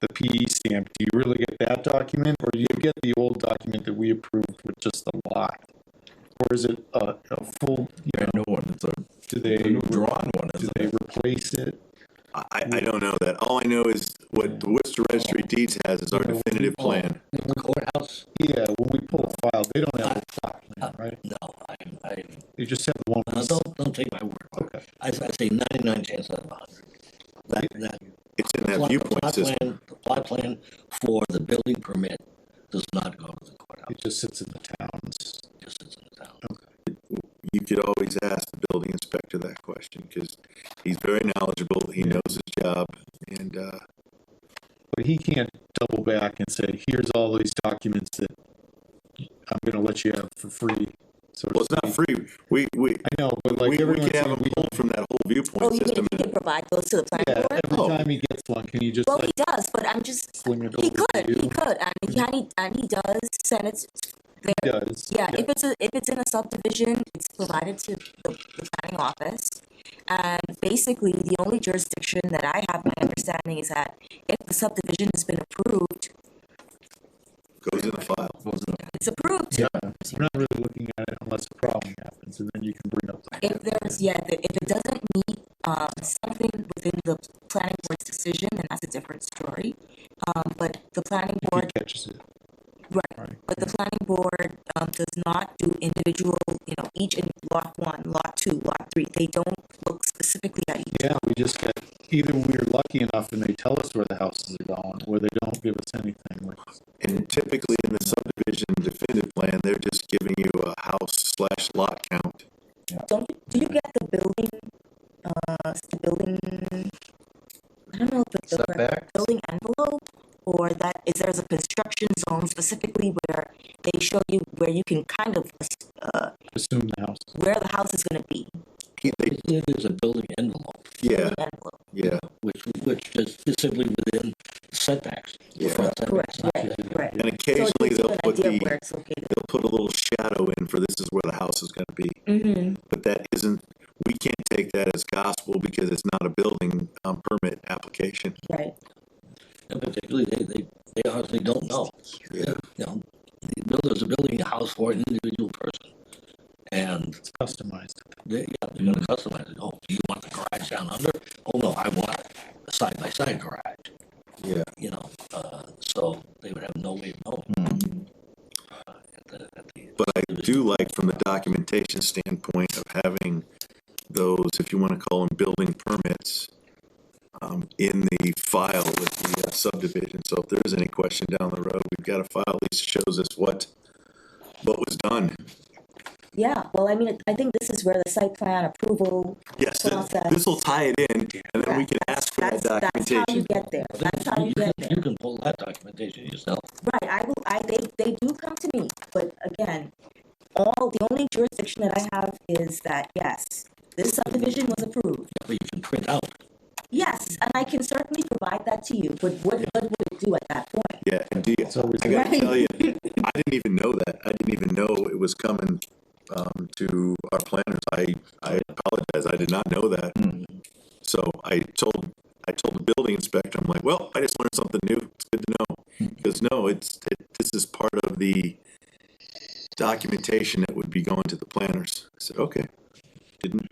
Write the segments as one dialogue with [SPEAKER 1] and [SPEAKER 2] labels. [SPEAKER 1] the PE stamp, do you really get that document, or do you get the old document that we approved with just the lot? Or is it a, a full, you
[SPEAKER 2] a
[SPEAKER 1] know,
[SPEAKER 2] new one, it's a
[SPEAKER 1] do
[SPEAKER 2] a
[SPEAKER 1] they,
[SPEAKER 2] new drawn one,
[SPEAKER 1] do
[SPEAKER 2] isn't
[SPEAKER 1] they
[SPEAKER 2] it?
[SPEAKER 1] replace it?
[SPEAKER 3] I, I don't know that. All I know is what the Worcester Registry of Deeds has is our definitive plan.
[SPEAKER 4] In the courthouse? Uh,
[SPEAKER 1] Yeah, when we pull a file, they don't have a plot plan, right?
[SPEAKER 4] No, I, I,
[SPEAKER 1] They just have the one.
[SPEAKER 4] no, don't, don't take my word for it. I, I say ninety-nine chance out of a hundred. That, that.
[SPEAKER 3] It's in
[SPEAKER 4] the
[SPEAKER 3] that
[SPEAKER 4] plot-
[SPEAKER 3] viewpoint
[SPEAKER 4] plot
[SPEAKER 3] system.
[SPEAKER 4] plan- The plot plan for the building permit does not go to the courthouse,
[SPEAKER 1] It just sits in the towns.
[SPEAKER 4] it just sits in the town.
[SPEAKER 3] You could always ask the building inspector that question because he's very knowledgeable. He knows his job and, uh,
[SPEAKER 1] But he can't double back and say, here's all these documents that I'm gonna let you have for free. So to
[SPEAKER 3] well, it's not
[SPEAKER 1] speak.
[SPEAKER 3] free. We, we,
[SPEAKER 1] I know, but
[SPEAKER 3] we, we
[SPEAKER 1] like everyone's
[SPEAKER 3] could have
[SPEAKER 1] saying,
[SPEAKER 3] him
[SPEAKER 1] we,
[SPEAKER 3] pulled from that whole
[SPEAKER 5] Oh,
[SPEAKER 3] viewpoint
[SPEAKER 5] you mean if
[SPEAKER 3] system.
[SPEAKER 5] he can provide those to the
[SPEAKER 1] yeah,
[SPEAKER 5] planning board?
[SPEAKER 1] every
[SPEAKER 3] Oh.
[SPEAKER 1] time he gets one, can you just
[SPEAKER 5] Well,
[SPEAKER 1] like
[SPEAKER 5] he does, but I'm just,
[SPEAKER 1] fling it
[SPEAKER 5] he
[SPEAKER 1] over
[SPEAKER 5] could,
[SPEAKER 1] to
[SPEAKER 5] he
[SPEAKER 1] you?
[SPEAKER 5] could, and he, and he, and he does send it. there.
[SPEAKER 1] He does.
[SPEAKER 5] Yeah, if it's, a- if it's in a subdivision, it's provided to the, the planning office. And basically, the only jurisdiction that I have my understanding is that if the subdivision has been approved,
[SPEAKER 3] Goes in the file.
[SPEAKER 5] it's approved.
[SPEAKER 1] Yeah, we're not really looking at it unless a problem happens, and then you can bring up. the-
[SPEAKER 5] If there's, yeah, if if it doesn't meet, um, something within the planning board's decision, then that's a different story. Um, but the planning
[SPEAKER 1] If
[SPEAKER 5] board
[SPEAKER 1] he catches it,
[SPEAKER 5] Right,
[SPEAKER 1] Right.
[SPEAKER 5] but the planning board, um, does not do individual, you know, each in lot one, lot two, lot three, they don't look specifically at each.
[SPEAKER 1] yeah, we just get, either we're lucky enough and they tell us where the houses are going, or they don't give us anything, like,
[SPEAKER 3] And typically in the subdivision definitive plan, they're just giving you a house slash lot count.
[SPEAKER 5] Don't, you- do you get the building, uh, the building, I don't know if it's the correct building envelope? Or that, is there's a construction zone specifically where they show you where you can kind of, uh,
[SPEAKER 1] assume the house.
[SPEAKER 5] where the house is gonna be.
[SPEAKER 3] He- they-
[SPEAKER 4] It is a building envelope,
[SPEAKER 3] Yeah,
[SPEAKER 5] building envelope.
[SPEAKER 3] yeah.
[SPEAKER 4] which, which is simply within setbacks. the
[SPEAKER 3] Yeah.
[SPEAKER 4] front setbacks,
[SPEAKER 5] Correct,
[SPEAKER 4] not
[SPEAKER 5] right,
[SPEAKER 4] the-
[SPEAKER 5] right.
[SPEAKER 3] And
[SPEAKER 5] So it
[SPEAKER 3] occasionally
[SPEAKER 5] gives you
[SPEAKER 3] they'll
[SPEAKER 5] an
[SPEAKER 3] put
[SPEAKER 5] idea of Where
[SPEAKER 3] the,
[SPEAKER 5] it's located.
[SPEAKER 3] they'll put a little shadow in for this is where the house is gonna be.
[SPEAKER 5] Mm-hmm.
[SPEAKER 3] But that isn't, we can't take that as gospel because it's not a building, um, permit application.
[SPEAKER 5] Right.
[SPEAKER 4] And particularly, they, they, they honestly don't know.
[SPEAKER 3] Yeah.
[SPEAKER 4] You know, the builders are building a house for an individual person. And
[SPEAKER 1] It's customized.
[SPEAKER 4] they, yeah, they're gonna customize it. Oh, do you want the garage down under? Oh, no, I want a side-by-side garage,
[SPEAKER 3] Yeah.
[SPEAKER 4] you know, uh, so they would have no way of knowing. Uh, at the- at the-
[SPEAKER 3] But I do like from the documentation standpoint of having those, if you wanna call them building permits, um, in the file with the uh, subdivision. So if there is any question down the road, we've got a file that shows us what, what was done.
[SPEAKER 5] Yeah, well, I mean, I think this is where the site plan approval.
[SPEAKER 3] Yes,
[SPEAKER 5] Process.
[SPEAKER 3] this will tie it in and then we can
[SPEAKER 5] That's-
[SPEAKER 3] ask for that
[SPEAKER 1] uh,
[SPEAKER 5] that's- That's how you
[SPEAKER 3] documentation.
[SPEAKER 5] get there, that's how you
[SPEAKER 4] You
[SPEAKER 5] get
[SPEAKER 4] can-
[SPEAKER 5] there,
[SPEAKER 4] You can pull that documentation yourself.
[SPEAKER 5] right, I will, I, they, they do come to me, but again, all, the only jurisdiction that I have is that, yes, this subdivision was approved,
[SPEAKER 4] but you can print out.
[SPEAKER 5] yes, and I can certainly provide that to you, but what, what would it do at that point?
[SPEAKER 3] Yeah, and do you,
[SPEAKER 1] It's always
[SPEAKER 3] I gotta
[SPEAKER 5] Right.
[SPEAKER 3] tell you, I didn't even know that. I didn't even know it was coming um, to our planners. I, I apologize. I did not know that.
[SPEAKER 1] Hmm.
[SPEAKER 3] So I told I told the building inspector, I'm like, well, I just learned something new. It's good to know.
[SPEAKER 1] Hmm.
[SPEAKER 3] Because no, it's it, this is part of the documentation that would be going to the planners. I said, okay, didn't.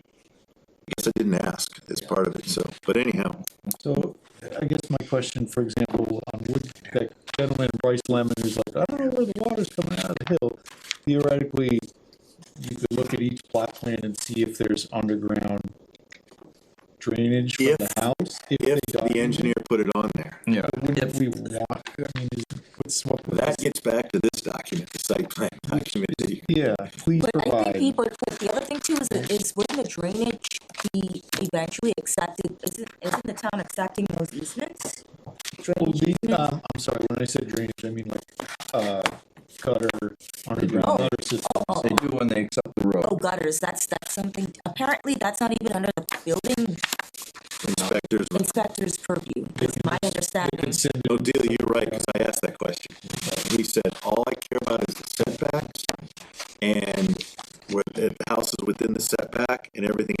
[SPEAKER 3] I guess I didn't ask as part of it. So, but anyhow,
[SPEAKER 1] So I guess my question, for example, um, would that gentleman Bryce Lemon who's like, I don't know where the water's coming out of the hill. Theoretically, you could look at each plot plan and see if there's underground drainage for
[SPEAKER 3] If-
[SPEAKER 1] the house.
[SPEAKER 3] if
[SPEAKER 1] they
[SPEAKER 3] the
[SPEAKER 1] document
[SPEAKER 3] engineer put it on there,
[SPEAKER 2] Yeah.
[SPEAKER 1] it, Wouldn't we want, I mean, is- what's, what,
[SPEAKER 3] That gets back to this document, the site plan document. that you-
[SPEAKER 1] yeah, please
[SPEAKER 5] But I think
[SPEAKER 1] provide.
[SPEAKER 5] people, the other thing too is, is wouldn't the drainage be eventually accepted, isn't, isn't the town accepting those easements?
[SPEAKER 1] Well,
[SPEAKER 5] Drainage
[SPEAKER 1] these,
[SPEAKER 5] easements?
[SPEAKER 1] um, I'm sorry, when I said drainage, I mean like, uh, cutter, underground gutter systems.
[SPEAKER 5] Oh,
[SPEAKER 2] They do when they accept the
[SPEAKER 5] Oh,
[SPEAKER 2] road.
[SPEAKER 5] gutters, that's, that's something, apparently that's not even under the building
[SPEAKER 3] Inspectors,
[SPEAKER 5] inspector's purview, is my understanding.
[SPEAKER 1] Send
[SPEAKER 3] no deal, you're right, because I asked that question. And He said, all I care about is the setbacks and where the the house is within the setback and everything uh,